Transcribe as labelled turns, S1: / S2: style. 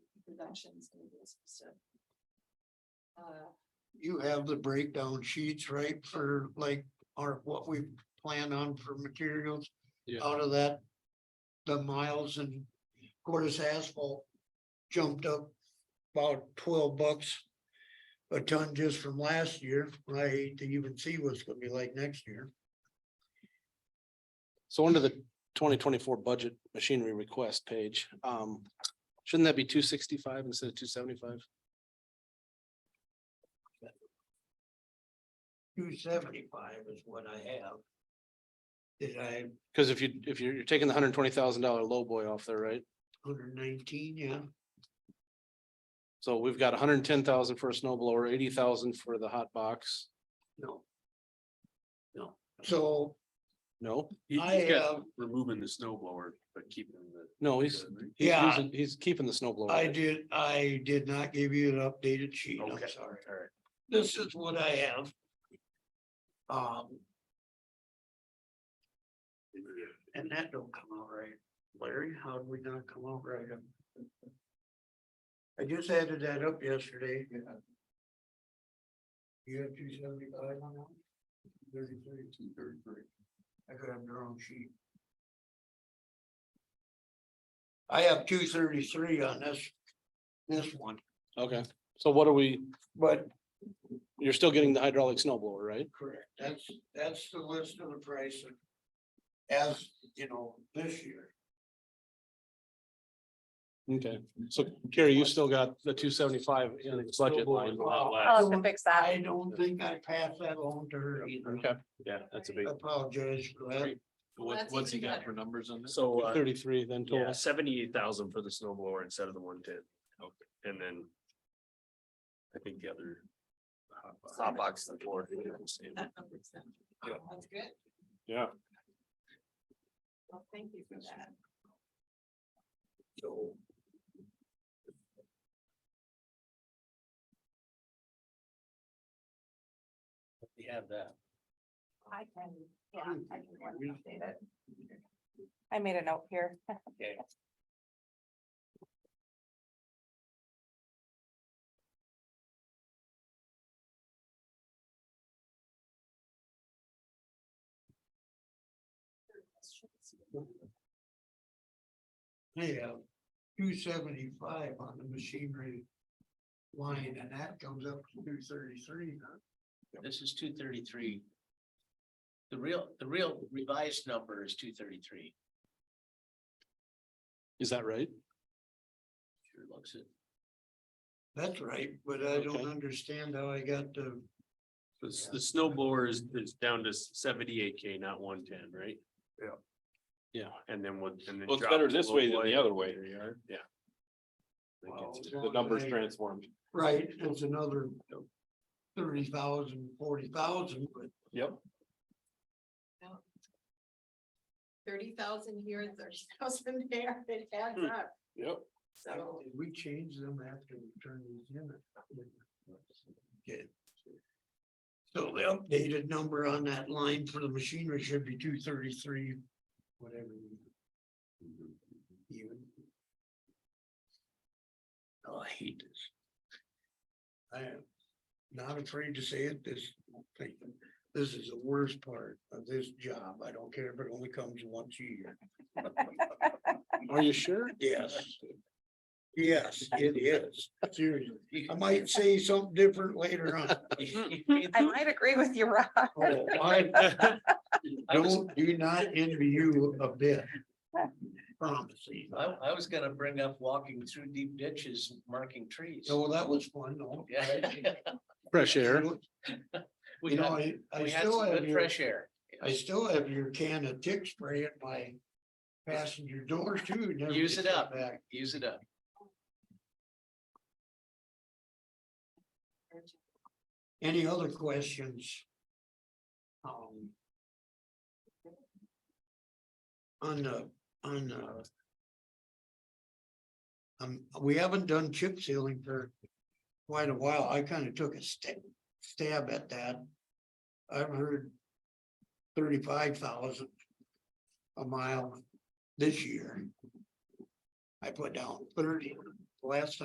S1: Productions. and this stuff. Uh,
S2: You have the breakdown sheets, right, for like, our what we plan on for materials
S3: Yeah,
S2: out of that. The miles and of course asphalt jumped up about twelve bucks. A ton just from last year. I hate to even see what's gonna be like next year.
S3: so under the twenty twenty-four budget machinery request page, um, shouldn't that be two sixty-five instead of two seventy-five?
S2: Two seventy-five is what I have. Did I,
S3: Because if you, if you're, you're taking the hundred twenty thousand dollar low boy off there, right?
S2: hundred nineteen, yeah,
S3: So we've got 110000 hundred ten thousand for a snow blower, eighty thousand for the hot box.
S2: no. No, so
S3: No,
S4: He-
S2: I
S4: he's got
S2: have-
S4: Removing the snow blower, but keeping the.
S3: no, he's, he's
S2: Yeah.
S3: using, he's keeping the snow blower.
S2: I did, I did not give you an updated sheet, I'm
S4: Okay,
S2: sorry.
S4: alright.
S2: This is what I have. Um. And that don't come out right. Larry, how did we not come out right? I just added that up yesterday. You have two seventy-five on that? Thirty-three, two thirty-three. I could have the wrong sheet. I have two thirty-three on this, this one,
S3: Okay, so what are we,
S2: but
S3: you're still getting the hydraulic snow blower, right?
S2: Correct, that's, that's the list of the price of- as, you know, this year.
S3: Okay, so Carrie, you still got the two seventy-five in the budget line.
S5: I'll have to fix that.
S2: I don't think I passed that on to her either.
S3: Okay, yeah, that's a big.
S2: Apologize for that.
S1: What, what's he got for
S4: numbers on this? So, uh,
S3: Thirty-three then
S4: yeah,
S3: total.
S4: seventy-eight thousand for the snow blower instead of the one-ten. And then. I think the other. Hot box. the floor.
S1: that number's done.
S4: Yeah.
S1: That's good.
S3: Yeah.
S1: Well, thank you for that.
S2: So
S4: We have that.
S5: I can, yeah, I can go and update it. I made a note here.
S2: I have two seventy-five on the machinery line and that comes up to two thirty-three.
S6: This is two thirty-three. The real, the real revised number is two thirty-three.
S3: Is that right?
S6: Sure looks it.
S2: That's right, but I don't
S3: Okay.
S2: understand how I got the,
S4: The, s- the snow blower is, is down to seventy-eight K, not one-ten, right?
S3: Yeah.
S4: And then what? and then
S3: Well, it's
S4: drop
S3: better
S4: to
S3: this
S4: low
S3: way than
S4: boy.
S3: the other way.
S4: Yeah.
S2: Wow.
S3: The numbers transformed.
S2: right, it's another thirty thousand, forty thousand, but
S3: Yep.
S1: Thirty thousand here and thirty thousand there, it adds
S4: Hmm.
S1: up,
S3: Yep.
S1: so.
S2: Did We change them after we turned these in. Okay. So the updated number on that line for the machinery should be two thirty-three, whatever. you- Even. Oh, I hate this. I am not afraid to say it, this thing, this is the worst part of this job. I don't care if it only comes once a year.
S3: Are you sure?
S2: Yes. Yes, it is, seriously. I might say something different later on.
S5: I might agree with you, Rob.
S2: Oh, I Don't, do not envy you a bit. Promise you.
S6: I, I was gonna bring up walking through deep ditches, marking trees.
S2: So that was fun, though.
S6: Yeah.
S3: Fresh air.
S6: We
S2: You know,
S6: had,
S2: I, I
S6: we had some
S2: still have
S6: good
S2: your,
S6: fresh air.
S2: I still have your can of tick spray at my passenger door too. never
S6: Use
S2: gets
S6: it up.
S2: back.
S6: Use it up.
S2: Any other questions? Um. On the, on the. Um, we haven't done chip sealing for quite a while. I kind of took a stab, stab at that. I've heard thirty-five thousand a mile this year. I put down thirty last